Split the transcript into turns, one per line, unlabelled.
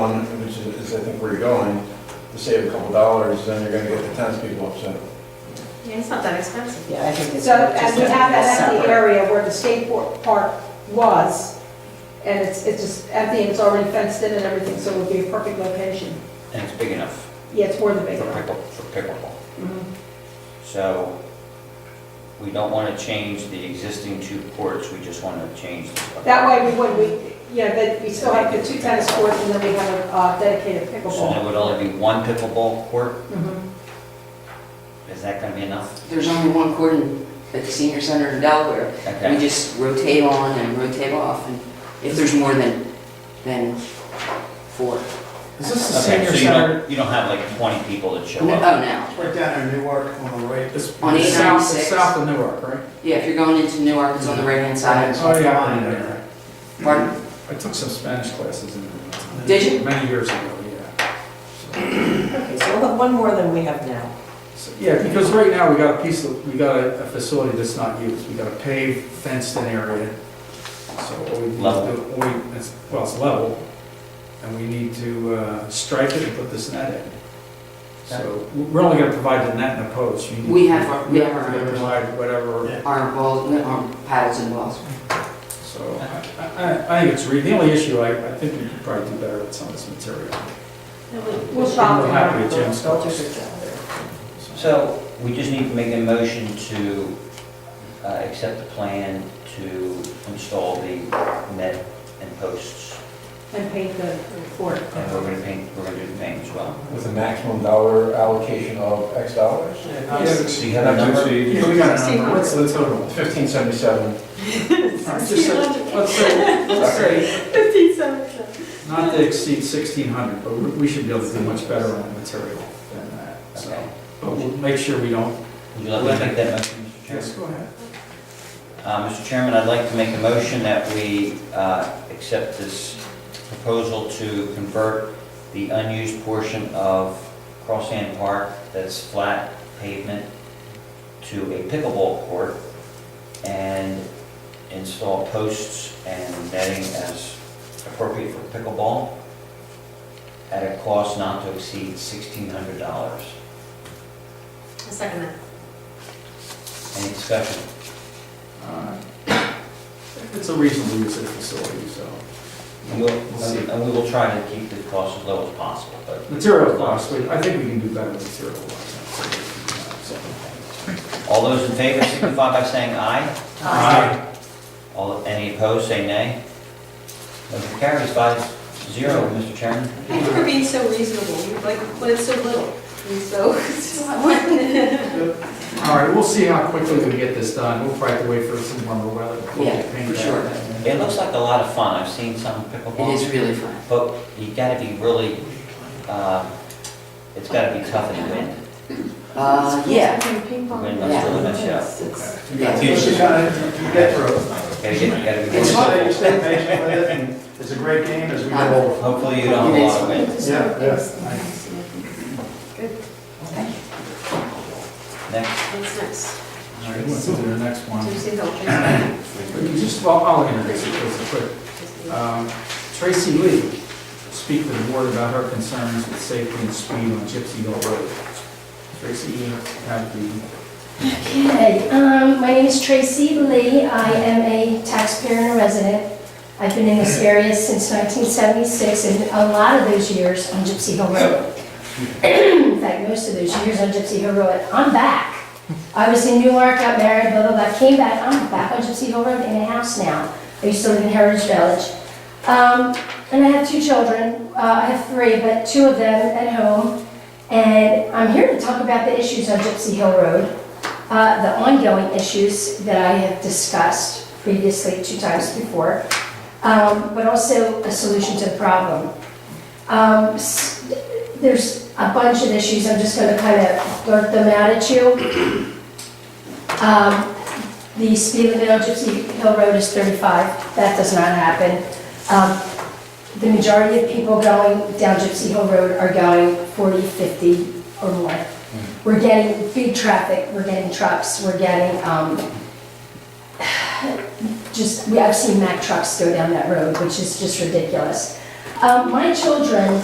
one, which is, is I think where you're going, to save a couple dollars, then you're gonna get the townspeople upset.
Yeah, it's not that expensive.
Yeah, I think it's.
So, and we
just
have that empty
separate.
area where the skateboard park was, and it's, it's just empty, and it's already fenced in and everything, so it would be a perfect location.
And it's big enough
Yeah, it's more than
for
big enough.
pickle, for pickleball.
Mhm.
So we don't want to change the existing two courts, we just want to change. the-
That way we would, we, you know, that we still have the two tennis courts, and then we have a uh, dedicated
So there
pickleball.
would only be one pickleball court,
Mhm.
is that going to be enough?
There's only one court in, at the senior center in Delaware. We
Okay,
just rotate on and rotate off, and if there's more than, than four.
Is this the
Okay,
senior
so you
center?
don't, you don't have like 20 people that show
No-
up?
Oh, no.
Right down in Newark on the right. It's
On
it's south- it's
896.
South of Newark, right?
Yeah, if you're going into Newark, it's on the right-hand side.
Oh, yeah, I know, yeah.
Pardon?
I took some Spanish classes in.
Did you?
Many years ago, yeah. So-
Okay, so we'll have one more than we have now.
so, Yeah, because right now, we got a piece of, we got a a facility that's not used. We got a paved, fenced-in area. So what we need to
Level.
do, what we- it's- well, it's level, and we need to uh, stripe it and put this net in. So we're only gonna provide the net and the post. You need-
We have our- we have our
We
own.
provide whatever.
Our balls, our paddles and balls.
So I, I, I think it's, re- the only issue, I, I think we could probably do better with some of this material.
We'll shop
We're
it.
happy with Jim's cost.
Well,
So we just need to make a motion to uh, accept the plan to install the net and posts.
And paint the court.
And we're going to paint, we're going to do the paint as well.
With a maximum dollar allocation of X dollars?
Do you have a number?
Yeah, we got a number, what's the total?
Fifteen seventy-seven.
All right, just say- Let's say, let's say, not to exceed sixteen hundred, but we we should be able to do much better on the material than that,
Okay.
so. But we'll make sure we don't.
Would you like me to make that motion, Mr. Chairman?
go ahead.
Uh, Mr. Chairman, I'd like to make a motion that we uh, accept this proposal to convert the unused portion of Crosshand Park that's flat pavement to a pickleball court and install posts and netting as appropriate for pickleball at a cost not to exceed $1,600.
A second that.
Any discussion?
uh, It's a reasonable use of the facility, so.
And we'll- and we will try to keep the cost as low as possible, but
Material cost, we- I think we can do better with material cost. so.
All those in favor signify by saying aye.
Aye.
All, any opposed, say nay. Motion carries five zero, Mr. Chairman.
I think we're being so reasonable, We like, when it's so little, and so. it's just-
All right, we'll see how quickly we get this done. We'll probably have to wait for some warmer weather. We'll
Yeah,
get paint
for
back.
sure.
It looks like a lot of fun, I've seen some
It is
pickleball,
really fun.
but you gotta be really, uh, it's gotta be tough in the wind.
Uh, yeah.
Ping
The
pong.
wind must really mess you up.
It's-
You
yeah.
gotta teach it how to get through it.
Gotta get, gotta be.
It's
really-
hard.
Stay patient with it, and it's a great game as we get older.
Hopefully you don't have a lot of wind.
Yeah, yeah.
Next,
What's next?
All right, let's do the next one.
Do you see the?
You Just, well, I'll introduce it real quick. Um, Tracy Lee will speak to the board about her concerns with safety and speed on Gypsy Hill Road. Tracy, you have the
Okay, um, my name is Tracy Lee. I am a taxpayer and a resident. I've been in this area since 1976 and a lot of those years on Gypsy Hill Road. In fact, most of those years on Gypsy Hill Road. I'm back. I was in Newark, got married, blah, blah, blah, came back. I'm back on Gypsy Hill Road in a house now. I used to live in Heritage Village. Um, and I have two children. Uh, I have three, but two of them at home. And I'm here to talk about the issues on Gypsy Hill Road uh, the ongoing issues that I have discussed previously two times before, um, but also a solution to the problem. Um, s- There's a bunch of issues, I'm just going to kind of blurt them out at you. Um, The speed limit on Gypsy Hill Road is 35, that does not happen. Um, The majority of people going down Gypsy Hill Road are going 40, 50 or more. We're getting big traffic, we're getting trucks, we're getting, um, just, we, I've seen Mack trucks go down that road, which is just ridiculous. Um, My children